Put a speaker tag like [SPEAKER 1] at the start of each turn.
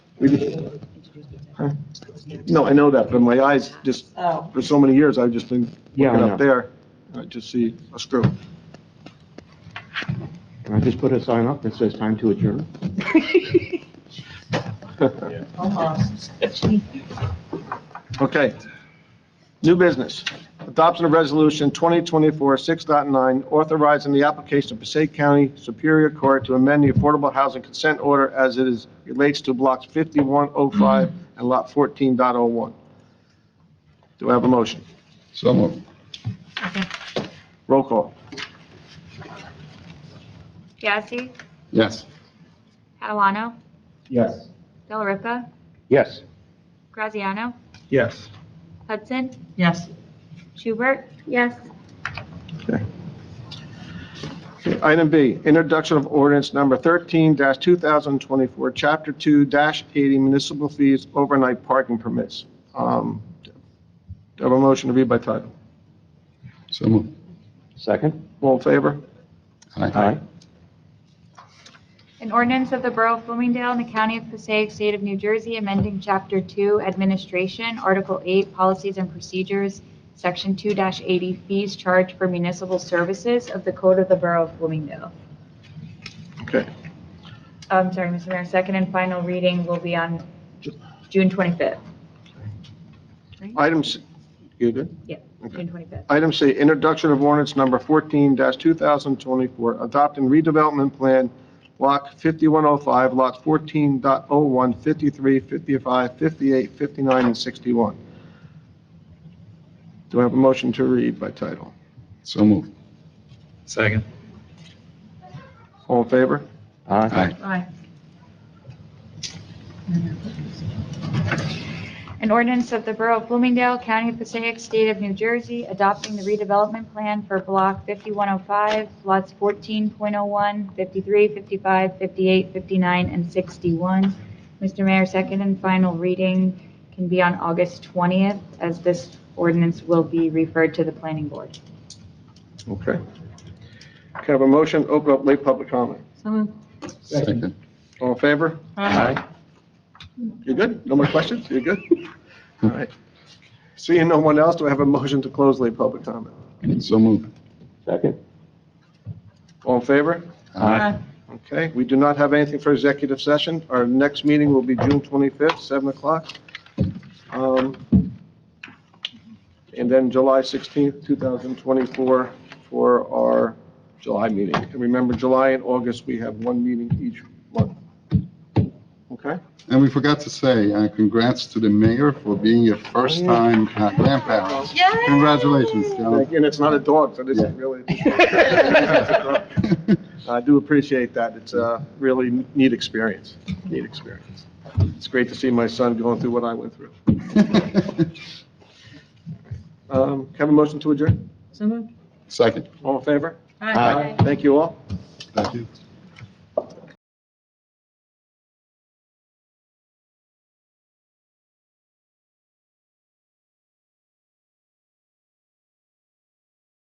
[SPEAKER 1] We- No, I know that, but my eyes just,
[SPEAKER 2] Oh,
[SPEAKER 1] for so many years, I've just been
[SPEAKER 3] Yeah, I
[SPEAKER 1] looking
[SPEAKER 3] know.
[SPEAKER 1] up there, I just see a screw.
[SPEAKER 3] Can I just put a sign up that says time to adjourn?
[SPEAKER 2] almost.
[SPEAKER 1] Okay. New business. Adoption of Resolution 2024-6.9, authorizing the application of Passaic County Superior Court to amend the Affordable Housing Consent Order as it is, relates to blocks 5105 and Lot 14.01. Do I have a motion?
[SPEAKER 4] So moved.
[SPEAKER 1] Roll call.
[SPEAKER 5] Yazdi,
[SPEAKER 4] Yes.
[SPEAKER 5] Catalano,
[SPEAKER 1] Yes.
[SPEAKER 5] Delariva,
[SPEAKER 3] Yes.
[SPEAKER 5] Graziano,
[SPEAKER 1] Yes.
[SPEAKER 5] Hudson,
[SPEAKER 2] Yes.
[SPEAKER 5] Schubert. Yes.
[SPEAKER 1] Item B, introduction of ordinance number 13-2024, Chapter 2-80 municipal fees, overnight parking permits. Um, Do I have a motion to read by title?
[SPEAKER 4] So moved.
[SPEAKER 3] Second?
[SPEAKER 1] All in favor?
[SPEAKER 3] Aye.
[SPEAKER 5] An ordinance of the Borough of Bloomingdale in the County of Passaic, State of New Jersey, amending Chapter 2 Administration, Article 8 Policies and Procedures, Section 2-80 Fees Charged for Municipal Services of the Code of the Borough of Bloomingdale.
[SPEAKER 1] Okay.
[SPEAKER 5] I'm sorry, Mr. Mayor, second and final reading will be on June 25th.
[SPEAKER 1] Item C, you good?
[SPEAKER 5] June 25th.
[SPEAKER 1] Item C, introduction of ordinance number 14-2024, adopting redevelopment plan, block 5105, lots 14.01, 53, 55, 58, 59, and 61. Do I have a motion to read by title?
[SPEAKER 4] So moved.
[SPEAKER 6] Second.
[SPEAKER 1] All in favor?
[SPEAKER 3] Aye.
[SPEAKER 5] Aye. An ordinance of the Borough of Bloomingdale, County of Passaic, State of New Jersey, adopting the redevelopment plan for Block 5105, lots 14.01, 53, 55, 58, 59, and 61. Mr. Mayor, second and final reading can be on August 20th, as this ordinance will be referred to the planning board.
[SPEAKER 1] Okay. Can I have a motion, to open up late public comment?
[SPEAKER 4] Second.
[SPEAKER 1] All in favor?
[SPEAKER 3] Aye.
[SPEAKER 1] You're good? No more questions? You're good? All right. Seeing no one else, do I have a motion to close late public comment?
[SPEAKER 4] So moved.
[SPEAKER 3] Second?
[SPEAKER 1] All in favor? Okay, we do not have anything for executive session. Our next meeting will be June 25th, 7 o'clock. Um, And then July 16th, 2024 for our July meeting. And remember, July and August, we have one meeting each month. Okay?
[SPEAKER 4] And we forgot to say, uh, congrats to the mayor for being your first-time uh, grandparents. Congratulations, Joe.
[SPEAKER 1] And it's not a dog, so this is really, I do appreciate that. It's a really neat experience, neat experience. It's great to see my son going through what I went through. Um, Can I Have a motion to adjourn?
[SPEAKER 2] So moved.
[SPEAKER 4] Second.
[SPEAKER 1] All in favor?
[SPEAKER 3] Aye.
[SPEAKER 1] Thank you all.
[SPEAKER 4] Thank you.